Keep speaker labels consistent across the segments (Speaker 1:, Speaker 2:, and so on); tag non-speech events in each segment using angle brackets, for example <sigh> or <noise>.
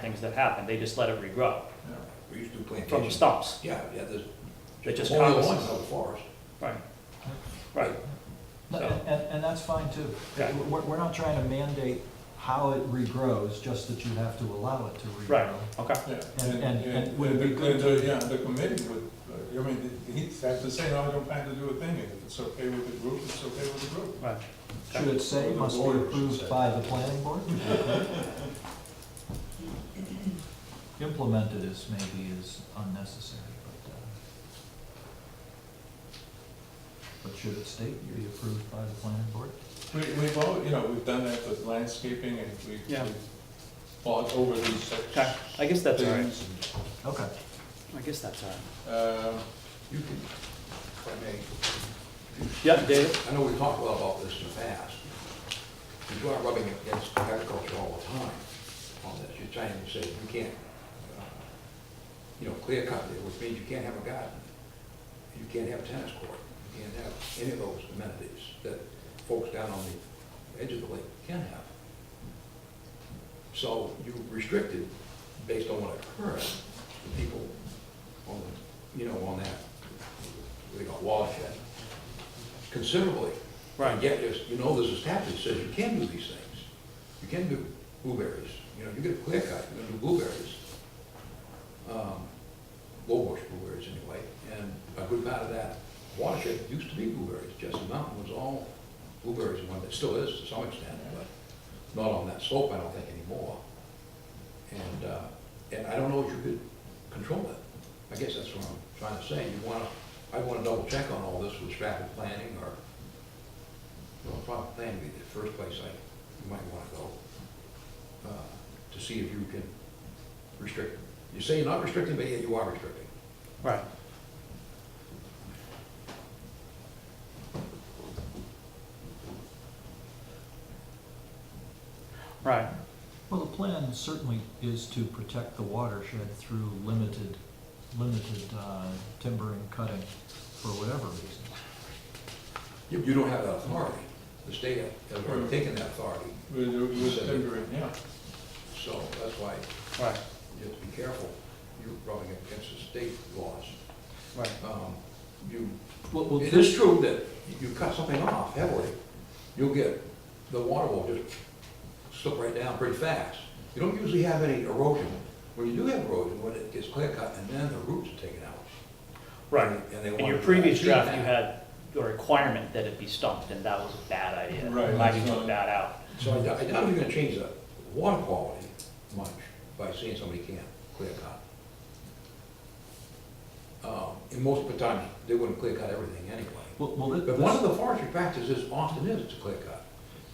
Speaker 1: things that happen, they just let it regrow
Speaker 2: Yeah, We used to do
Speaker 1: from the
Speaker 2: plantations.
Speaker 1: stumps.
Speaker 2: Yeah, yeah, there's.
Speaker 1: They just
Speaker 2: Only
Speaker 1: coppice.
Speaker 2: one out of the forest.
Speaker 1: Right. Right,
Speaker 3: No,
Speaker 1: So-
Speaker 3: And, and that's fine too.
Speaker 1: Okay.
Speaker 3: We're, we're not trying to mandate how it regrows, just that you have to allow it to
Speaker 1: right,
Speaker 3: regrow.
Speaker 1: okay.
Speaker 4: Yeah,
Speaker 3: And- and- and would it
Speaker 4: the-
Speaker 3: be good
Speaker 4: the- Yeah, the committee would, uh, I mean, he'd have to say, no, I don't plan to do a thing, if it's okay with the group, it's okay with the group.
Speaker 1: Right.
Speaker 3: Should it say must be approved by the planning board? Implemented is maybe is unnecessary, but, uh, but should it state be approved by the planning board?
Speaker 4: We, we've all, you know, we've done that with landscaping, and we,
Speaker 1: Yeah.
Speaker 4: we fought over these such
Speaker 1: Okay, I guess that's all right,
Speaker 4: things.
Speaker 3: Okay.
Speaker 1: I guess that's all right.
Speaker 4: Uh,
Speaker 2: You can, if I may,
Speaker 1: Yeah, David?
Speaker 2: I know we talked well about this in the past. You are rubbing against agriculture all the time on this. You're trying to say you can't, uh, you know, clear cut it, which means you can't have a garden. You can't have a tennis court. You can't have any of those amenities that folks down on the edge of the lake can have. So you restricted based on what occurred, the people on, the you know, on that, what they got watershed, considerably.
Speaker 1: Right.
Speaker 2: Yet, there's- you know, there's a statute that says you can do these things. You can do blueberries, you know, you get a clear cut, you can do blueberries. Um, Low bush blueberries anyway, and a good part of that watershed used to be blueberries. Jesse Mountain was all blueberries, and one that still is to some extent, but not on that slope, I don't think anymore. And, uh, and I don't know if you could control it. I guess that's what I'm trying to say. You wanna, I wanna double check on all this with Stratford Planning or, well, probably planning would be the first place I, you might wanna go, uh, to see if you can restrict. You say you're not restricting, but yet you are restricting.
Speaker 1: Right. Right,
Speaker 3: Well, the plan certainly is to protect the watershed through limited, limited uh, timbering cutting for whatever reason.
Speaker 2: You, you don't have that authority. The state has already taken that authority,
Speaker 4: with, with timbering, yeah.
Speaker 2: so that's why
Speaker 1: right,
Speaker 2: you have to be careful. You're rubbing against the state laws.
Speaker 1: right,
Speaker 2: Um, You
Speaker 3: Well, well,
Speaker 2: It is true that you cut something off heavily, you'll get, the water will just slip right down pretty fast. You don't usually have any erosion. When you do have erosion, when it gets clear cut, and then the roots are taken out.
Speaker 1: right.
Speaker 2: And they
Speaker 1: In your
Speaker 2: want-
Speaker 1: previous
Speaker 2: see
Speaker 1: draft,
Speaker 2: that.
Speaker 1: you had a requirement that it be stumped, and that was a bad idea.
Speaker 4: Right,
Speaker 1: Glad you
Speaker 4: that's
Speaker 1: took
Speaker 4: not-
Speaker 1: that out.
Speaker 2: So I doubt, I doubt you're gonna change the water quality much by seeing somebody can't clear cut. Um, And most of the time, they wouldn't clear cut everything anyway.
Speaker 3: Well, well, thi-
Speaker 2: But one of
Speaker 3: this,
Speaker 2: the forestry practices often is to clear cut.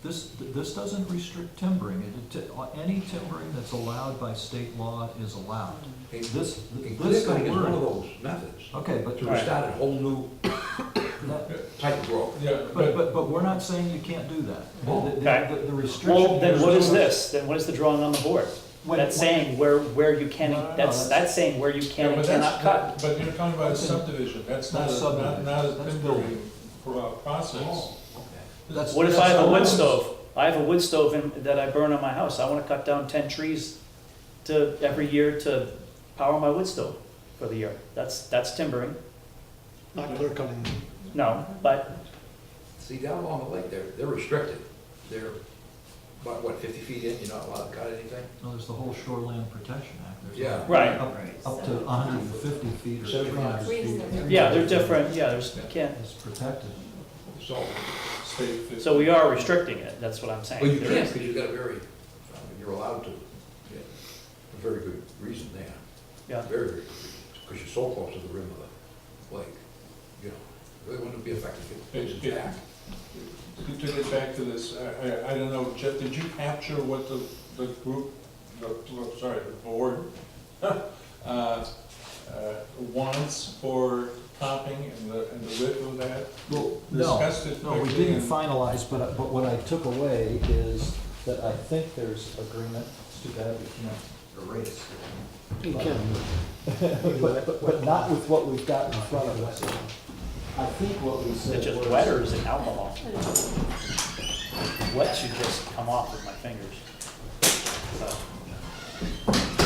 Speaker 3: this, this doesn't restrict timbering. It- it- Any timbering that's allowed by state law is allowed.
Speaker 2: This,
Speaker 3: This-
Speaker 2: clear cutting
Speaker 3: this
Speaker 2: is one of
Speaker 3: word-
Speaker 2: those methods
Speaker 3: Okay, but,
Speaker 2: to restart a whole new
Speaker 3: that-
Speaker 2: type of growth.
Speaker 4: Yeah,
Speaker 3: but,
Speaker 4: but,
Speaker 3: but, but we're not saying you can't do that.
Speaker 2: Oh,
Speaker 3: The- the-
Speaker 1: okay.
Speaker 3: the- The restriction.
Speaker 1: Well, then what is this? Then what is the drawing on the board?
Speaker 3: When-
Speaker 1: That's saying where, where you can,
Speaker 3: No, no, no,
Speaker 1: that's,
Speaker 3: that's-
Speaker 1: that's saying where you
Speaker 4: yeah,
Speaker 1: can
Speaker 4: but
Speaker 1: and cannot cut.
Speaker 4: that's, but you're talking about a
Speaker 3: That's in-
Speaker 4: subdivision, that's not
Speaker 3: that's
Speaker 4: a, not, not a
Speaker 3: subdivision. That's
Speaker 4: timbering pro- process.
Speaker 3: That's-
Speaker 1: What if I have a wood
Speaker 3: that's-
Speaker 1: stove? I have a wood stove in, that I burn on my house. I wanna cut down ten trees to, every year to power my wood stove for the year. That's, that's timbering.
Speaker 5: Not clear cutting.
Speaker 1: No, but,
Speaker 2: See, down along the lake, they're, they're restricted. They're, about, what, fifty feet in, you're not allowed to cut anything?
Speaker 3: No, there's the whole Shoreland Protection Act. There's
Speaker 2: Yeah.
Speaker 1: right,
Speaker 3: Up up to hundred and fifty feet or three hundred
Speaker 2: Seventy-five.
Speaker 3: feet.
Speaker 1: yeah, they're different, yeah, there's, can't,
Speaker 3: It's protected.
Speaker 2: So,
Speaker 4: State fifty.
Speaker 1: so we are restricting it, that's what I'm saying.
Speaker 2: well, you
Speaker 1: There
Speaker 2: can't,
Speaker 1: is-
Speaker 2: because you've got a very, I mean, you're allowed to. Yeah, A very good reason there,
Speaker 1: Yeah,
Speaker 2: very, very good reason, because you're so close to the rim of the lake. You know, really wouldn't be effective if it was back.
Speaker 4: To to get back to this, I, I, I don't know, Jeff, did you capture what the, the group, the, oh, sorry, the board, <laughs> uh, uh, wants for topping and the, and the width of that?
Speaker 3: Well,
Speaker 4: Discussed it
Speaker 3: No, we
Speaker 4: quickly
Speaker 3: didn't
Speaker 4: and-
Speaker 3: finalize, but, I- but what I took away is that I think there's agreement. It's too bad we can't erase.
Speaker 5: You can.
Speaker 3: But, but, but not with what we've got in front of us. I think what we said
Speaker 1: Is it
Speaker 3: was.
Speaker 1: just wet or is it alcohol? Wet should just come off with my fingers. So,